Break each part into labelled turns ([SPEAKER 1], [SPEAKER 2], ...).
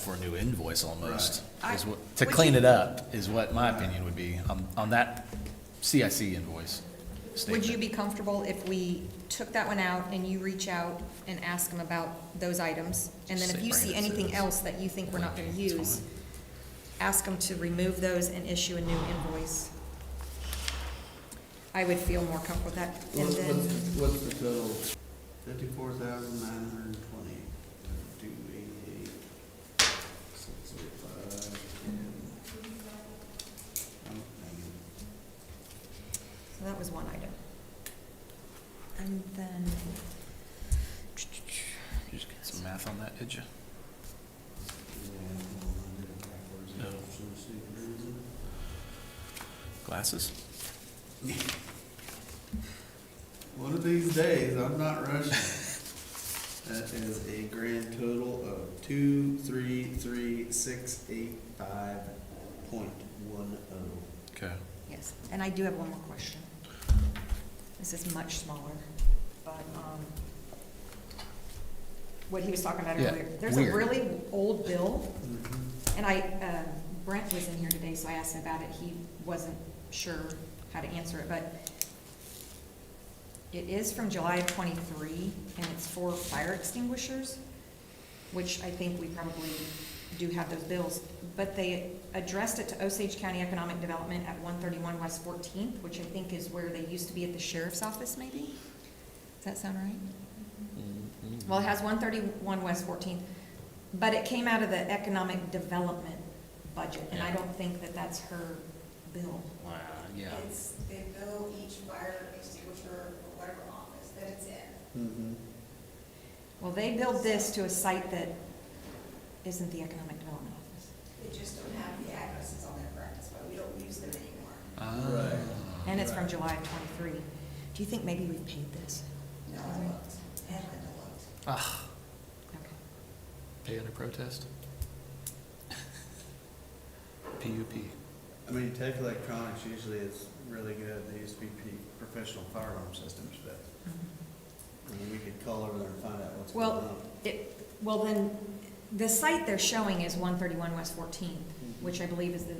[SPEAKER 1] for a new invoice almost,
[SPEAKER 2] Right.
[SPEAKER 1] is
[SPEAKER 2] I-
[SPEAKER 1] what, to
[SPEAKER 2] would
[SPEAKER 1] clean
[SPEAKER 2] you-
[SPEAKER 1] it up is what my opinion would be on, on that CIC invoice
[SPEAKER 2] Would you
[SPEAKER 1] statement.
[SPEAKER 2] be comfortable if we took that one out and you reach out and ask them about those items? And then if you see anything else that you think we're not gonna use, ask them to remove those and issue a new invoice. I would feel more comfortable with that. And
[SPEAKER 3] What's, what's,
[SPEAKER 2] then,
[SPEAKER 3] what's the total? Fifty-four thousand nine hundred and twenty, two eighty-eight, six oh five, Oh, ten.
[SPEAKER 2] so that was one item. And then,
[SPEAKER 1] You just get some math on that, did you? No. Glasses?
[SPEAKER 3] One of these days, I'm not rushing. That is a grand total of two, three, three, six, eight, five, point one oh.
[SPEAKER 1] Okay.
[SPEAKER 2] yes, and I do have one more question. This is much smaller, but, um, what he was talking about
[SPEAKER 1] Yeah,
[SPEAKER 2] earlier. There's a
[SPEAKER 1] weird.
[SPEAKER 2] really old bill
[SPEAKER 3] Mhm.
[SPEAKER 2] And I, um, Brent was in here today, so I asked him about it, he wasn't sure how to answer it, but it is from July of twenty-three, and it's for fire extinguishers, which I think we probably do have those bills, but they addressed it to Osage County Economic Development at one thirty-one West Fourteenth, which I think is where they used to be at the sheriff's office, maybe? Does that sound right? Well, it has one thirty-one West Fourteenth, but it came out of the economic development budget, and I
[SPEAKER 1] Yeah.
[SPEAKER 2] don't think that that's her bill.
[SPEAKER 1] Wow, yeah.
[SPEAKER 4] It's, they bill each fire extinguisher for whatever office that it's in.
[SPEAKER 3] Mhm.
[SPEAKER 2] Well, they billed this to a site that isn't the economic development office.
[SPEAKER 4] They just don't have the addresses on their records, but we don't use them anymore.
[SPEAKER 1] Ah.
[SPEAKER 2] And it's from July of twenty-three. Do you think maybe we paid this?
[SPEAKER 4] No, I looked, and Linda looked.
[SPEAKER 1] Ah,
[SPEAKER 2] Okay.
[SPEAKER 1] pay under protest? PUP.
[SPEAKER 3] I mean, Tech Electronics usually is really good. They used to be pretty professional firearm systems, but
[SPEAKER 2] Mm-hmm.
[SPEAKER 3] I mean, we could call over there and find out what's going
[SPEAKER 2] Well-
[SPEAKER 3] on.
[SPEAKER 2] It, well, then, the site they're showing is one thirty-one West Fourteenth, which I believe is the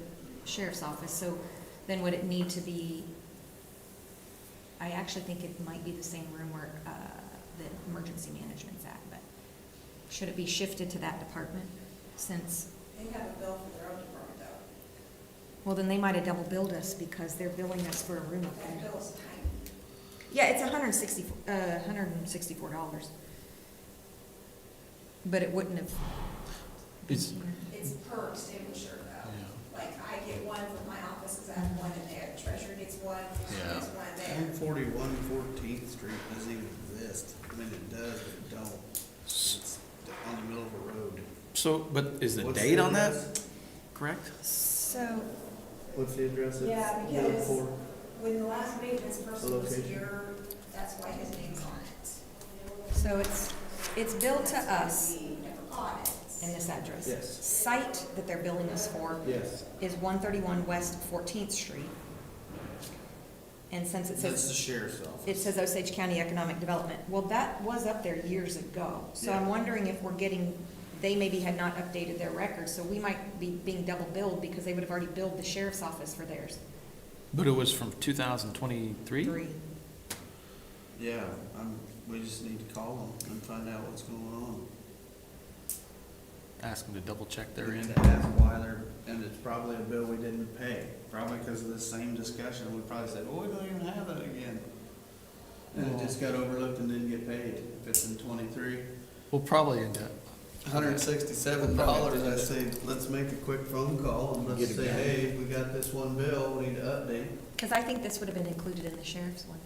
[SPEAKER 2] sheriff's office, so then would it need to be, I actually think it might be the same room where, uh, the emergency management's at, but should it be shifted to that department since,
[SPEAKER 4] They have a bill for their own department though.
[SPEAKER 2] well, then they might have double billed us because they're billing us for a room up
[SPEAKER 4] That
[SPEAKER 2] there.
[SPEAKER 4] bill is tiny.
[SPEAKER 2] Yeah, it's a hundred and sixty, uh, hundred and sixty-four dollars. But it wouldn't have. been
[SPEAKER 1] It's-
[SPEAKER 2] here.
[SPEAKER 4] It's per extinguisher
[SPEAKER 1] Yeah.
[SPEAKER 4] though. Like I get one for my office, cause I have one in there, the treasurer gets one, she
[SPEAKER 1] Yeah.
[SPEAKER 4] gets one there.
[SPEAKER 3] One forty-one Fourteenth Street doesn't even exist. I mean, it does, but it don't. It's on the middle of a road.
[SPEAKER 1] So, but is the
[SPEAKER 3] What's
[SPEAKER 1] date on that
[SPEAKER 3] address?
[SPEAKER 1] correct?
[SPEAKER 2] So,
[SPEAKER 3] What's the address? it's
[SPEAKER 4] Yeah, because-
[SPEAKER 3] known for?
[SPEAKER 4] When the last maintenance person was
[SPEAKER 3] Location.
[SPEAKER 4] here, that's why his name's on it.
[SPEAKER 2] so it's, it's billed to us
[SPEAKER 4] We never caught it.
[SPEAKER 2] in this address.
[SPEAKER 3] Yes.
[SPEAKER 2] Site that they're billing us for
[SPEAKER 3] Yes.
[SPEAKER 2] is one thirty-one West Fourteenth Street. And since it
[SPEAKER 3] That's the
[SPEAKER 2] says,
[SPEAKER 3] sheriff's office.
[SPEAKER 2] it says Osage County Economic Development, well, that was up there years ago. So I'm
[SPEAKER 3] Yeah.
[SPEAKER 2] wondering if we're getting, they maybe had not updated their records, so we might be being double billed because they would have already billed the sheriff's office for theirs.
[SPEAKER 1] But it was from 2023?
[SPEAKER 2] Three.
[SPEAKER 3] Yeah, I'm, we just need to call them and find out what's going on.
[SPEAKER 1] Ask them to double check their
[SPEAKER 3] And
[SPEAKER 1] end.
[SPEAKER 3] to ask why they're, and it's probably a bill we didn't pay, probably because of this same discussion, we probably said, well, we don't even have that again. And it just got overlooked and didn't get paid, if it's in twenty-three.
[SPEAKER 1] We'll probably end up.
[SPEAKER 3] Hundred and sixty-seven dollars, I say, let's make a quick phone call and let's say, hey, we got this one bill, we need to update.
[SPEAKER 2] Because I think this would have been included in the sheriff's one,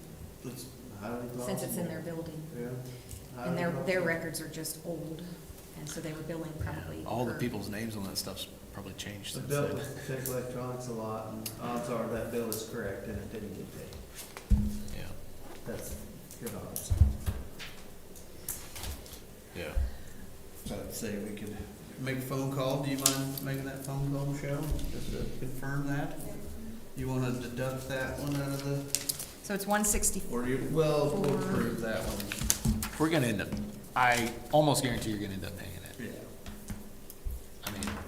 [SPEAKER 3] It's highly possible.
[SPEAKER 2] since it's in their building.
[SPEAKER 3] Yeah.
[SPEAKER 2] And their,
[SPEAKER 3] highly
[SPEAKER 2] their
[SPEAKER 3] possible.
[SPEAKER 2] records are just old, and so they were billing probably.
[SPEAKER 1] All the
[SPEAKER 2] per-
[SPEAKER 1] people's names on that stuff's probably changed
[SPEAKER 3] I
[SPEAKER 1] since
[SPEAKER 3] dealt
[SPEAKER 1] then.
[SPEAKER 3] with Tech Electronics a lot, and odds are that bill is correct and it didn't get paid.
[SPEAKER 1] Yeah,
[SPEAKER 3] That's good odds.
[SPEAKER 1] yeah.
[SPEAKER 3] So I'd say we could make a phone call. Do you mind making that phone call, Michelle? Just to confirm that? You wanna deduct that one out of the,
[SPEAKER 2] So it's one sixty-four.
[SPEAKER 3] or you, well, we'll prove that one.
[SPEAKER 1] We're gonna end up, I almost guarantee you're gonna end up paying